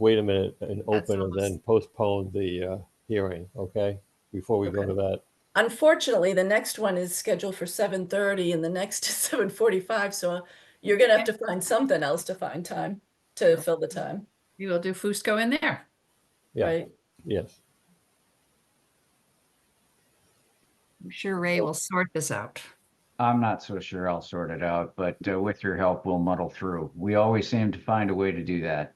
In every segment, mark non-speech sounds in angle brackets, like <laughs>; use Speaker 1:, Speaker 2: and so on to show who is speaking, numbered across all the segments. Speaker 1: wait a minute and open and
Speaker 2: almost-
Speaker 1: then postpone the uh, hearing, okay? Before we go
Speaker 2: Okay.
Speaker 1: to that.
Speaker 3: Unfortunately, the next one is scheduled for seven thirty and the next <laughs> is seven forty-five, so you're gonna have to find something else to find time to fill the time,
Speaker 2: We will do Fusco in there.
Speaker 1: Yeah,
Speaker 3: right?
Speaker 1: yes.
Speaker 2: I'm sure Ray will sort this out.
Speaker 4: I'm not so sure I'll sort it out, but uh, with your help, we'll muddle through. We always seem to find a way to do that.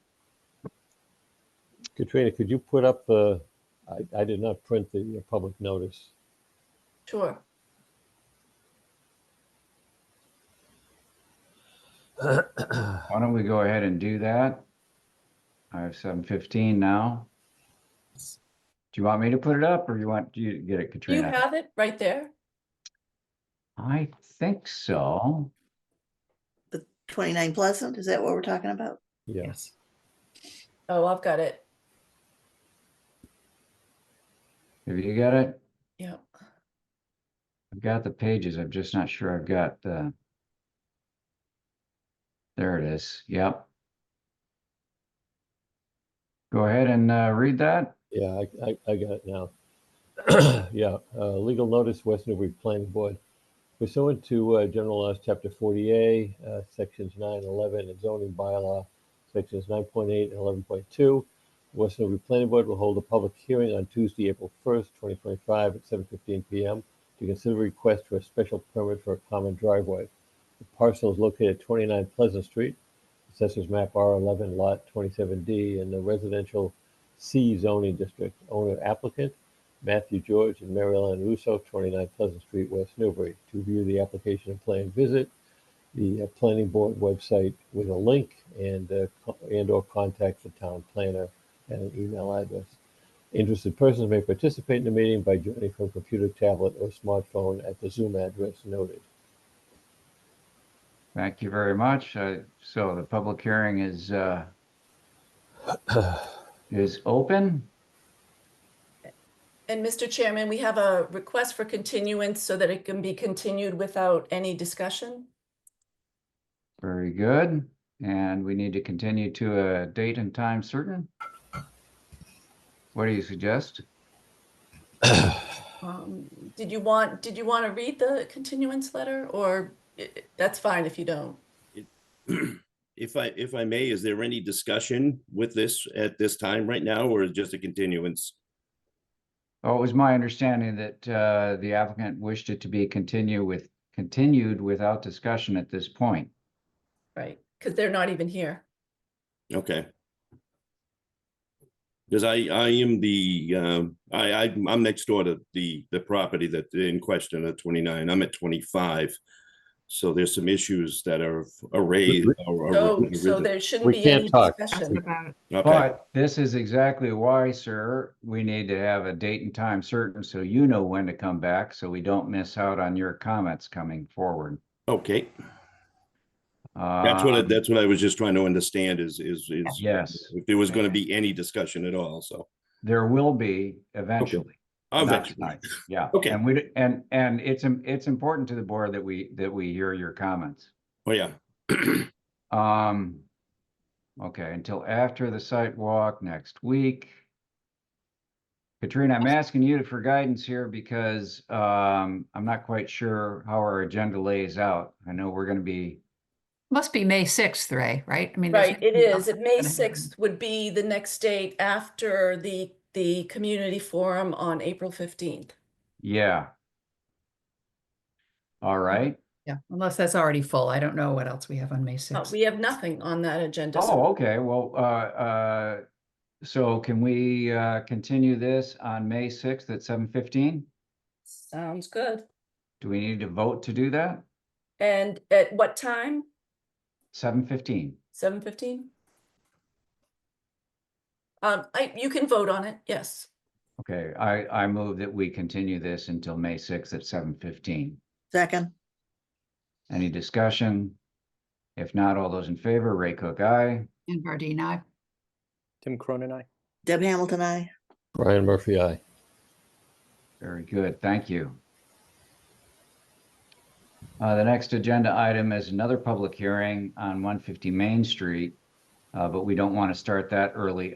Speaker 1: Katrina, could you put up the, I, I did not print the public notice.
Speaker 3: Sure.
Speaker 4: Why don't we go ahead and do that? I have seven fifteen now. Do you want me to put it up or you want, do you to get it,
Speaker 3: Do you
Speaker 4: Katrina?
Speaker 3: have it right there?
Speaker 4: I think so.
Speaker 5: 29 Pleasant, is that what we're talking about?
Speaker 1: Yeah,
Speaker 3: Oh, I've got it.
Speaker 4: Have you got it?
Speaker 3: Yeah.
Speaker 4: I've got the pages. I'm just not sure I've got the. There it is. Yep. Go ahead and uh, read that.
Speaker 1: yeah, I, I, I got it now. <clears throat> Yeah, uh, legal notice, West Newbury Planning Board. Pursuant to uh, General Laws, Chapter 40A, uh, Sections 9, 11, and zoning bylaw, Sections 9.8 and 11.2, West Newbury Planning Board will hold a public hearing on Tuesday, April 1st, 2025, at 7:15 PM to consider a request for a special permit for a common driveway. The parcel is located at 29 Pleasant Street, Assessors Map R11, Lot 27D, in the residential C zoning district. Owner applicant, Matthew George and Mary Ellen Russo, 29 Pleasant Street, West Newbury. To view the application and plan, visit the uh, planning board website with a link and, uh, co- and or contact the town planner at an email address. Interested persons may participate in the meeting by joining from computer, tablet, or smartphone at the Zoom address noted.
Speaker 4: Thank you very much. Uh, So the public hearing is, uh, is open.
Speaker 3: And Mr. Chairman, we have a request for continuance so that it can be continued without any discussion.
Speaker 4: Very good. And we need to continue to a date and time certain. What do you suggest?
Speaker 3: Um, Did you want, did you want to read the continuance letter or i- i- that's fine if you don't?
Speaker 6: If I, if I may, is there any discussion with this at this time right now, or is it just a continuance?
Speaker 4: Oh, it was my understanding that uh, the applicant wished it to be continue with, continued without discussion at this point.
Speaker 3: Right, because they're not even here.
Speaker 6: Okay. Because I, I am the, um, I, I, I'm next door to the, the property that in question at twenty-nine, I'm at twenty-five. So there's some issues that are arrayed. or-
Speaker 3: So,
Speaker 6: or-
Speaker 3: Oh, so there shouldn't
Speaker 1: We
Speaker 3: be
Speaker 1: can't
Speaker 3: any
Speaker 1: talk.
Speaker 2: Ask
Speaker 3: discussion.
Speaker 2: about it.
Speaker 6: Okay,
Speaker 4: But this is exactly why, sir, we need to have a date and time certain so you know when to come back, so we don't miss out on your comments coming forward.
Speaker 6: okay, that's what, I-
Speaker 4: Um,
Speaker 6: that's what I was just trying to understand is, is, is.
Speaker 4: Yes.
Speaker 6: If there was gonna be any discussion at all, so.
Speaker 4: There will be eventually.
Speaker 6: I'll
Speaker 4: not
Speaker 6: bet you.
Speaker 4: tonight, Yeah.
Speaker 6: Oh, Okay.
Speaker 4: And we, and, and it's, im- it's important to the board that we, that we hear your comments.
Speaker 6: Oh, yeah. <clears throat>
Speaker 4: Um, okay, until after the site walk next week. Katrina, I'm asking you for guidance here because, um, I'm not quite sure how our agenda lays out. I know we're gonna be,
Speaker 2: Must be May 6th, Ray, right? I mean, there's
Speaker 3: Right, it
Speaker 2: nothing
Speaker 3: is.
Speaker 2: else
Speaker 3: It May
Speaker 2: gonna happen.
Speaker 3: 6th would be the next date after the, the community forum on April 15th.
Speaker 4: yeah. All right.
Speaker 2: Yeah, unless that's already full. I don't know what else we have on May
Speaker 3: Uh,
Speaker 2: 6th.
Speaker 3: We have nothing on that agenda. so-
Speaker 4: Oh, okay, well, uh, uh, so can we, uh, continue this on May sixth at seven fifteen?
Speaker 3: Sounds good.
Speaker 4: Do we need to vote to do that?
Speaker 3: And at what time?
Speaker 4: Seven fifteen?
Speaker 3: Seven fifteen? Um, I, you can vote on it, yes.
Speaker 4: Okay, I, I move that we continue this until May sixth at seven fifteen.
Speaker 5: Second,
Speaker 4: Any discussion? If not, all those in favor, Ray Cook, aye.
Speaker 2: And Bardine, I,
Speaker 7: Tim Cronin, I.
Speaker 5: Deb Hamilton, I.
Speaker 1: Brian Murphy, aye.
Speaker 4: Very good, thank you. Uh, the next agenda item is another public hearing on one fifty Main Street. Uh, but we don't want to start that early